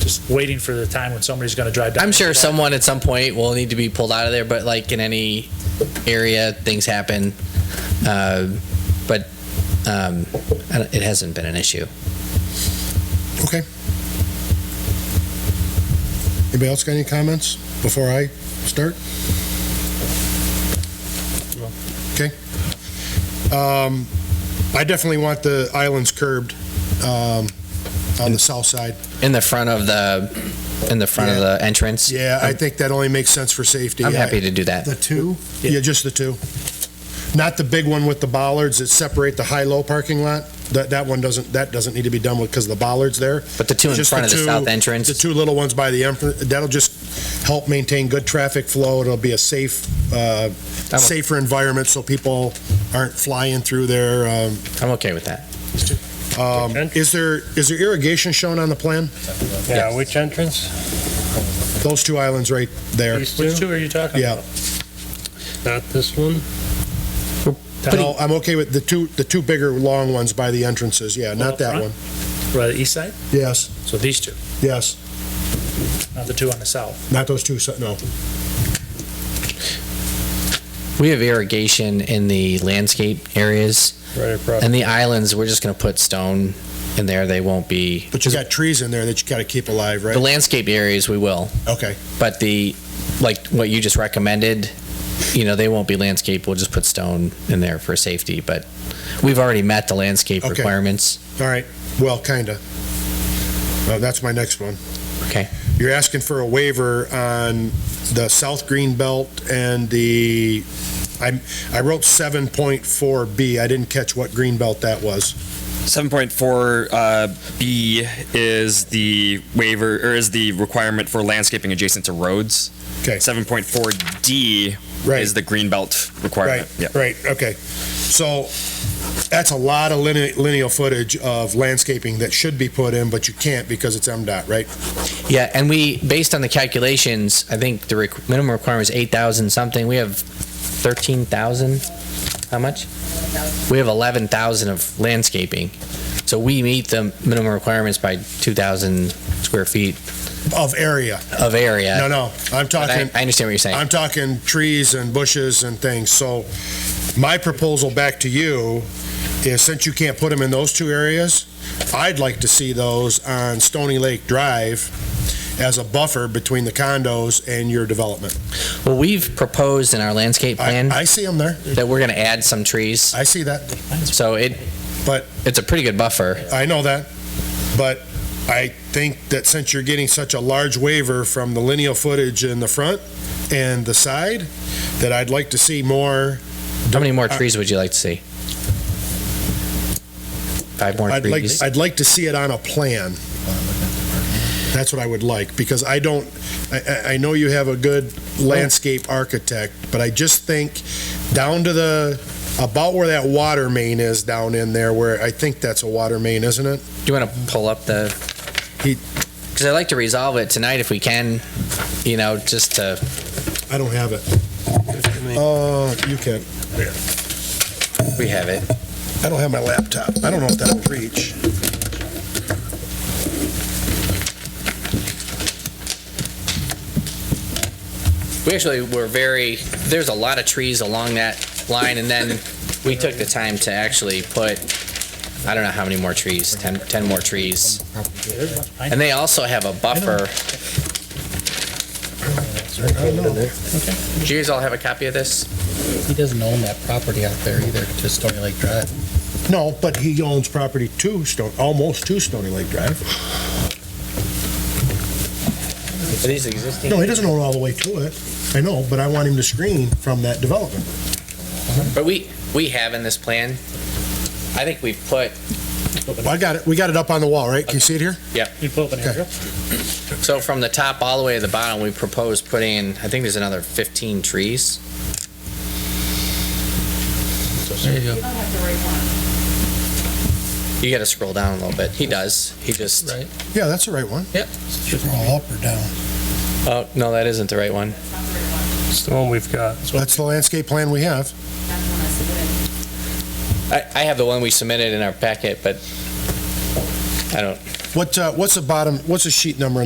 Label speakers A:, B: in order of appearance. A: just waiting for the time when somebody's going to drive down.
B: I'm sure
A: Right.
B: someone at some point will need to be pulled out of there, but like in any area, things happen. Uh, but um, I don't- it hasn't been an issue.
C: Okay. Anybody else got any comments before I start? Okay. Um, I definitely want the islands curbed, um, on the south side.
B: In the front of the in the front of the entrance.
C: Yeah, I think that only makes sense for safety.
B: I'm
C: I-
B: happy to do that.
C: The two? Yeah, just the two. Not the big one with the bollards that separate the high-low parking lot. That, that one doesn't, that doesn't need to be done with, because the bollards there.
B: But the two in
C: Just
B: front of the
C: two-
B: south entrance.
C: The two little ones by the, enf- that'll just help maintain good traffic flow. It'll be a safe, uh,
B: I'm-
C: safer environment so people aren't flying through there. um,
B: I'm okay with that.
C: um, Is there, is there irrigation shown on the plan?
D: Yeah, which entrance?
C: Those two islands right there.
D: These
A: Which
D: two?
A: two are you talking
C: Yeah.
A: about?
D: Not this one?
C: No, I'm okay with the two, the two bigger, long ones by the entrances. Yeah,
A: One
C: not
A: up
C: that
A: front?
C: one.
A: Right, the east side?
C: Yes,
A: So these two,
C: yes.
A: not the two on the south.
C: Not those two, se- no.
B: We have irrigation in the landscape areas
D: Right across.
B: and the islands. We're just going to put stone in there. They won't be.
C: But you got trees in there that you gotta keep alive,
B: The
C: right?
B: landscape areas we will,
C: Okay,
B: but the like what you just recommended, you know, they won't be landscape. We'll just put stone in there for safety. But we've already met the landscape
C: Okay.
B: requirements.
C: all right, well, kinda. Uh, that's my next one.
B: Okay.
C: You're asking for a waiver on the South Green Belt and the, I, I wrote seven point four B, I didn't catch what green belt that was.
E: 7.4 uh, B is the waiver or is the requirement for landscaping adjacent to roads.
C: Okay.
E: 7.4 D
C: Right,
E: is the greenbelt
C: right,
E: requirement. Yep.
C: right, okay. So, that's a lot of linear, lineal footage of landscaping that should be put in, but you can't because it's MDOT, right?
B: Yeah, and we based on the calculations, I think the requ- minimum requirement is eight thousand something. We have thirteen thousand. How much? We have eleven thousand of landscaping, so we meet the minimum requirements by two thousand square feet
C: Of area,
B: of area.
C: no, no, I'm
B: But
C: talking.
B: I, I understand what you're saying.
C: I'm talking trees and bushes and things. So my proposal back to you is since you can't put them in those two areas, I'd like to see those on Stony Lake Drive as a buffer between the condos and your development.
B: well, we've proposed in our landscape
C: I,
B: plan
C: I see them there.
B: that we're going to add some trees,
C: I see that.
B: so it.
C: But-
B: it's a pretty good buffer.
C: I know that. But I think that since you're getting such a large waiver from the lineal footage in the front and the side, that I'd like to see more
B: How many more
C: I-
B: trees would you like to see? Five more
C: I'd like,
B: trees.
C: I'd like to see it on a plan. That's what I would like, because I don't, I- I, I know you have a good landscape architect, but I just think down to the, about where that water main is down in there, where I think that's a water main, isn't it?
B: Do you want to pull up the?
C: He-
B: Because I'd like to resolve it tonight if we can, you know, just to,
C: I don't have it. Uh, you can.
B: we have it.
C: I don't have my laptop. I don't know if that'll reach.
B: We actually were very, there's a lot of trees along that line and then we took the time to actually put, I don't know how many more trees, 10, 10 more trees. And they also have a buffer. Do you guys all have a copy of this?
F: He doesn't own that property out there either, to Stony Lake Drive.
C: No, but he owns property to Stone, almost to Stony Lake Drive.
B: Are these existing?
C: No, he doesn't own all the way to it. I know, but I want him to screen from that development.
B: But we, we have in this plan, I think we've put,
C: Well, I got it. We got it up on the wall, right? Can you see it here?
A: You pull up an aerial?
B: So from the top all the way to the bottom, we propose putting, in I think there's another 15 trees.
F: There you go.
B: You got to scroll down a little bit. He does. He just,
F: Right.
C: Yeah, that's the right one.
F: All up or down?
B: oh, no, that isn't the right one.
D: It's the one we've got.
C: That's the landscape plan we have.
B: I, I have the one we submitted in our packet, but I don't,
C: What, uh, what's the bottom, what's the sheet number